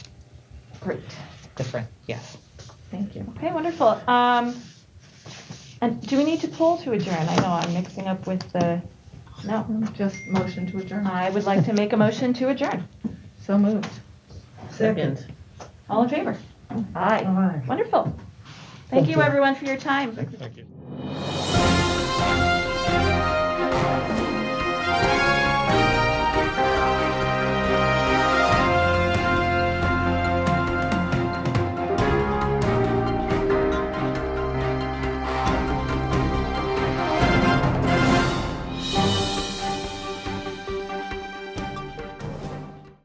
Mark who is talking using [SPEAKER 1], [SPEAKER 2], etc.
[SPEAKER 1] Great,
[SPEAKER 2] different, yes.
[SPEAKER 1] thank you. Okay, wonderful. Um, and do we need to poll to adjourn? I know I'm mixing up with the, no.
[SPEAKER 3] Just motion to adjourn.
[SPEAKER 1] I would like to make a motion to adjourn.
[SPEAKER 3] So moved.
[SPEAKER 2] Second.
[SPEAKER 1] All in favor? Aye.
[SPEAKER 3] Aye.
[SPEAKER 1] Wonderful. Thank you, everyone, for your time.
[SPEAKER 4] Thank you.